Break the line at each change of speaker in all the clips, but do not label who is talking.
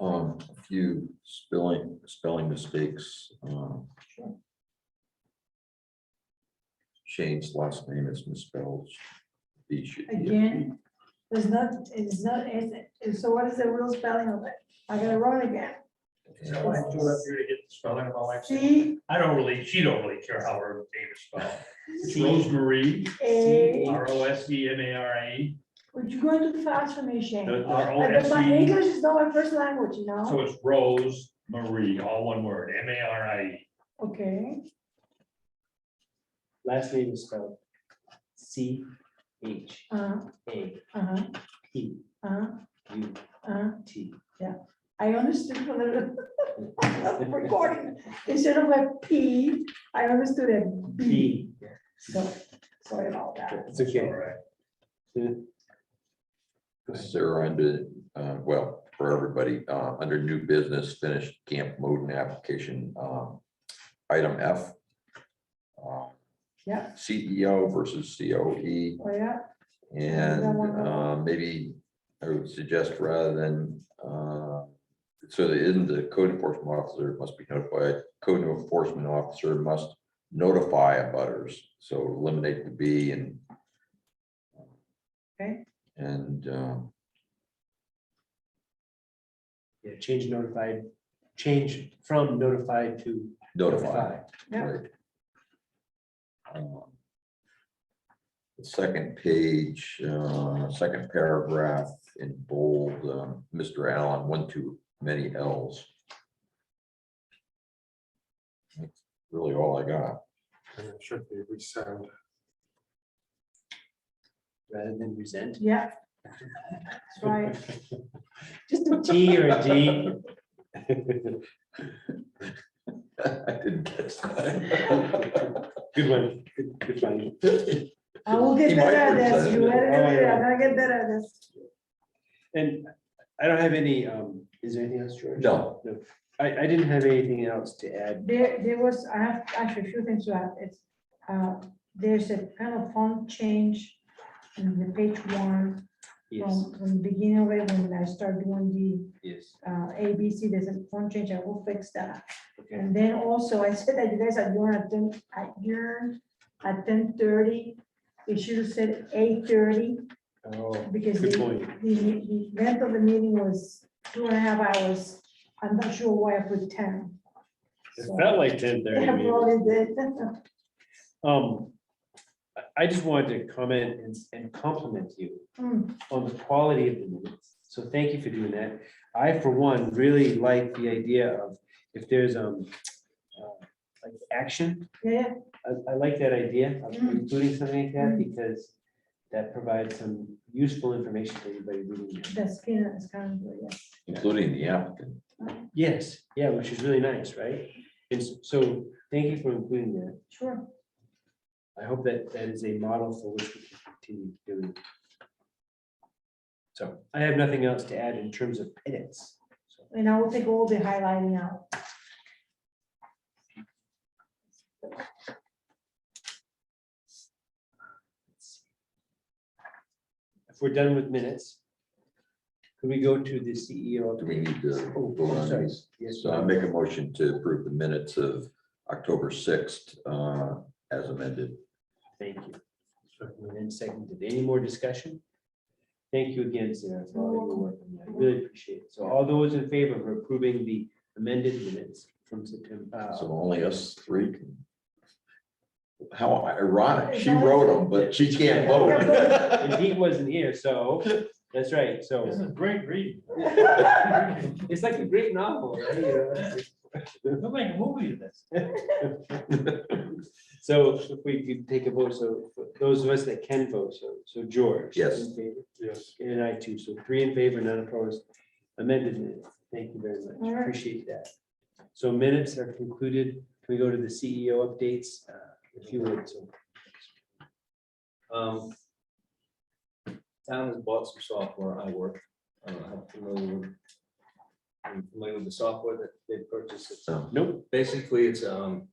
Um, a few spelling, spelling mistakes, um. Shane's last name is misspelled. He should be-
Again, there's not, it's not, it's, so what is the real spelling of it? I gotta run again.
Is that why I'm doing up here to get the spelling of my wife's name?
C
I don't really, she don't really care how her name is spelled. It's
C
Rose Marie,
A,
R O S E M A R I E,
would you go too fast for me, Shane?
the R O
Like,
S
My
E.
English is not my first language, you know?
So it's Rose Marie, all one word, M A R I E.
Okay,
Last name is spelled C H
uh,
A
uh,
P
uh,
U
uh.
T.
I understood from the recording, instead of a P, I understood a B.
B.
So, sorry about that.
It's okay.
All right.
Sarah under, uh, well, for everybody, uh, under new business finished camp Moden application, um, item F. uh,
Yeah.
CEO versus E. COE.
Oh, yeah,
And
Yeah, why not?
uh, maybe I would suggest rather than, uh, so that isn't the code enforcement officer must be notified, code enforcement officer must notify abutters. So eliminate the B and.
Okay.
And um,
Yeah, change notified, change from notified to
notify.
notify.
Yeah.
right. Um, The second page, uh, second paragraph in bold, um, Mr. Allen, one too many L's. That's Really all I got.
And it should be resend.
Rather than resent.
yeah. That's right. Just a
T or a D.
I didn't catch that.
Good one, good, good one.
I will get
He might
better
have
at this.
said
You
it.
better,
Oh, yeah.
I'm gonna get better at this.
And I don't have any, um, is there anything else, George?
No.
No, I, I didn't have anything else to add.
There, there was, I have actually a few things to add. It's, uh, there's a kind of font change in the page one.
Yes,
From, from the beginning of it, when I start doing
yes,
the, uh, A, B, C, there's a font change. I will fix that.
okay.
And then also, I said that you guys are going at ten, at your, at ten thirty, it should have said eight thirty,
Oh,
because the,
good point.
the, the length of the meeting was two and a half hours. I'm not sure why I put ten.
It
So-
felt like ten thirty.
Yeah, probably did.
Um, I- I just wanted to comment and, and compliment you
Mm,
on the quality of the minutes. So thank you for doing that. I, for one, really like the idea of if there's, um, uh, like action.
Yeah,
I, I like that idea of
Mm.
including something like that
Mm.
because that provides some useful information for everybody reading. it.
the skin is kind of, yeah.
Including the applicant.
Yes, yeah, which is really nice, right? And s- so thank you for including that.
sure.
I hope that that is a model for which we can continue doing. So I have nothing else to add in terms of edits. So
And I will take all the highlighting out.
If we're done with minutes, could we go to the CEO?
Do we need to
Oh,
vote on
sorry.
these?
Yes.
So I make a motion to approve the minutes of October sixth, uh, as amended.
Thank you. And then seconded, any more discussion? Thank you again, Sarah, for all your work. on that. I Really appreciate it. So all those in favor of approving the amended minutes from September,
So
uh,
only us three can. How ironic. She wrote them, but she can't vote.
and he wasn't here, so, that's right, so.
This is great read.
It's like a great novel, right? You know?
They'll make a movie of this.
So if we could take a vote, so for those of us that can vote, so, so George.
Yes.
in favor,
Yes.
And I too, so three in favor, none opposed, amended minutes, thank you very
All
much,
right.
appreciate that. So minutes are concluded, can we go to the CEO updates, uh, if you would, so.
Um. Town has bought some software, I work, I don't know how familiar. with- I'm familiar with the software that they purchased, It's-
Nope,
basically, it's, um.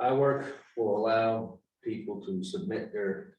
I work will allow people to submit their